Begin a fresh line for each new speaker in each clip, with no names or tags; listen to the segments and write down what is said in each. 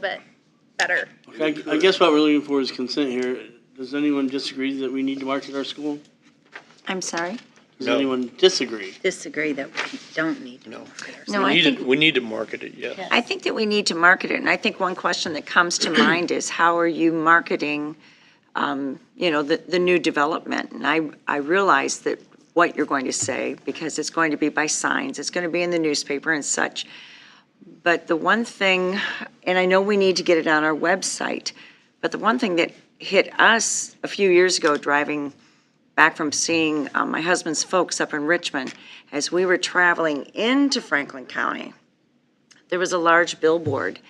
bit better.
I, I guess what we're looking for is consent here. Does anyone disagree that we need to market our school?
I'm sorry?
Does
No.
anyone disagree?
disagree that we don't need to
No.
market ourselves.
No,
We
I
need
think,
to- We need to market it, yes.
I think that we need to market it, and I think one question that comes to mind is how are you marketing, um, you know, the, the new development? And I, I realize that what you're going to say, because it's going to be by signs, it's going to be in the newspaper and such. But the one thing, and I know we need to get it on our website, but the one thing that hit us a few years ago driving back from seeing um, my husband's folks up in Richmond, as we were traveling into Franklin County, there was a large billboard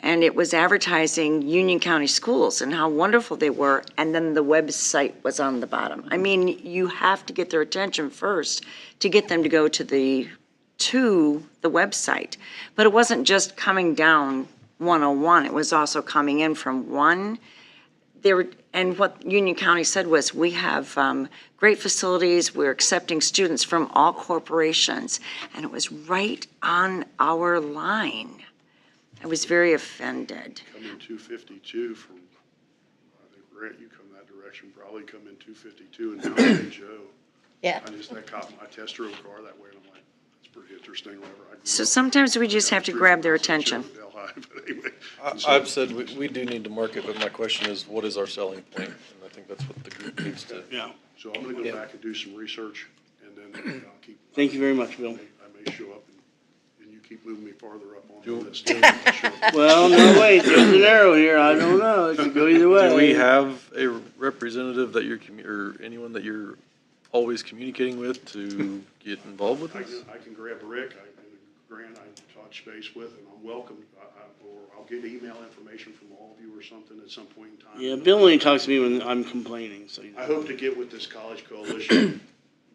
and it was advertising Union County schools and how wonderful they were. And then the website was on the bottom. I mean, you have to get their attention first to get them to go to the, to the website. But it wasn't just coming down 101, it was also coming in from one they were, and what Union County said was, we have um, great facilities, we're accepting students from all corporations. And it was right on our line. I was very offended.
Come in two fifty-two from, I think, Grant, you come that direction, probably come in two fifty-two and down to Joe.
Yeah.
I just, I caught my test drove car that way, and I'm like, that's pretty interesting, whatever. I grew
So
up-
sometimes we just have to grab their attention.
Delhi, but anyway.
I-
And so-
I've said we, we do need to market, but my question is, what is our selling point? And I think that's what the group needs to.
Yeah.
So I'm gonna go
Yeah.
back and do some research, and then uh, I'll keep.
Thank you very much,
I
Bill.
may show up, and- and you keep moving me farther up on the
Do-
list. I'll show up.
Well, no, wait, there's an arrow here. I don't know. It could go either way.
Do we have a representative that you're, commu- or anyone that you're always communicating with to get involved with
I
this?
can, I can grab Rick, I can, Grant, I can touch base with, and I'm welcome, I, I, or I'll get email information from all of you or something at some point in time.
Yeah, Bill only talks to me when I'm complaining, so you know.
I hope to get with this college coalition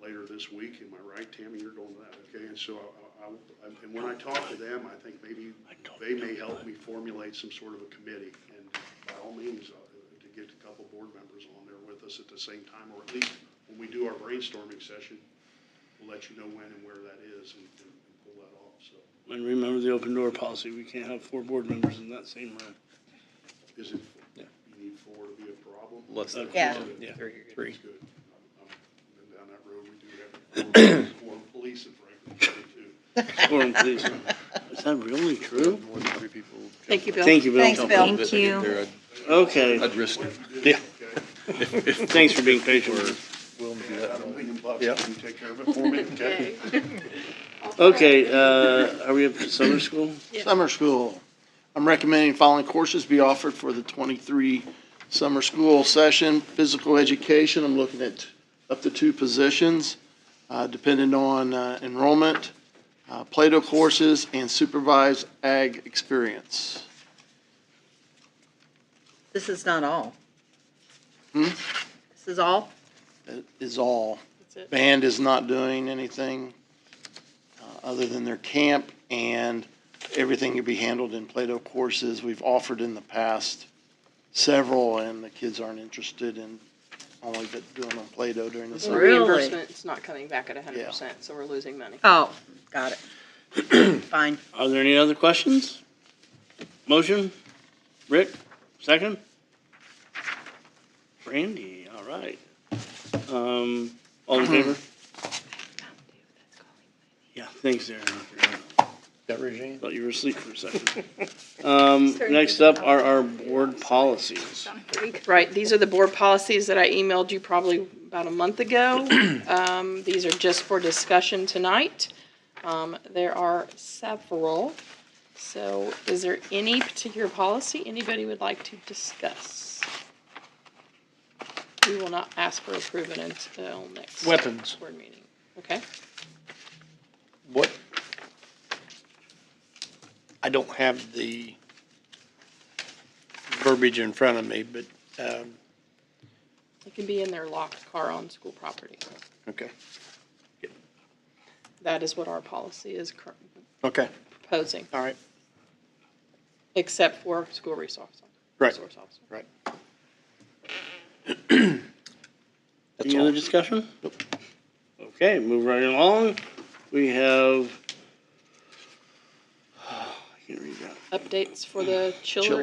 later this week, am I right, Tammy, you're going to that, okay, and so I, I- I, and when I talk to them, I think maybe they may help me formulate some sort of a committee, and by all means, uh, to get a couple board members on there with us at the same time, or at least when we do our brainstorming session, we'll let you know when and where that is and, and pull that off, so.
And remember the open door policy. We can't have four board members in that same room.
Is it, you need four to be a problem?
Less than.
Yeah.
Yeah.
That's good. I'm- I'm- Been down that road, we do have more police in Franklin County too.
Quorum, please. Is that really true?
More than three people.
Thank you, Bill.
Thank you, Bill.
Thanks, Bill.
Thank
If I get
you.
there, I'd-
Okay,
I'd risk it.
Yeah. thanks for being patient. with us.
Willing to do
I
that.
don't think in Bucks,
Yep.
can you take care of it for me, okay?
Okay, uh, are we up to summer school?
Summer school. I'm recommending following courses be offered for the 23 summer school session. Physical education, I'm looking at up to two positions, uh, depending on uh, enrollment, uh, Plato courses, and supervised ag experience.
This is not all.
Hmm?
This is all?
That Is all. Band is not doing anything uh, other than their camp, and everything can be handled in Plato courses. We've offered in the past several, and the kids aren't interested in only but doing on Plato during the
So
summer.
Really?
reimbursement's not coming back at hundred percent, so we're losing money.
Oh, got it. Fine.
Are there any other questions? Motion? Rick, second? Brandy, all right. Um, all in favor? Yeah, thanks, Aaron.
That regime?
Thought you were asleep for a second. Um, next up are our board policies.
Right, these are the board policies that I emailed you probably about a month ago. Um, these are just for discussion tonight. Um, there are several. So is there any particular policy anybody would like to discuss? We will not ask for approval until next
Weapons.
board meeting, okay?
What? I don't have the verbiage in front of me, but, um,
It can be in their locked car on school property.
okay,
That is what our policy is cur-
okay,
proposing,
all right.
except for school resource officer.
Right.
resource officer.
That's
Any other
all.
discussion? Okay, move right along. We have. I can't read that.
Updates for the children.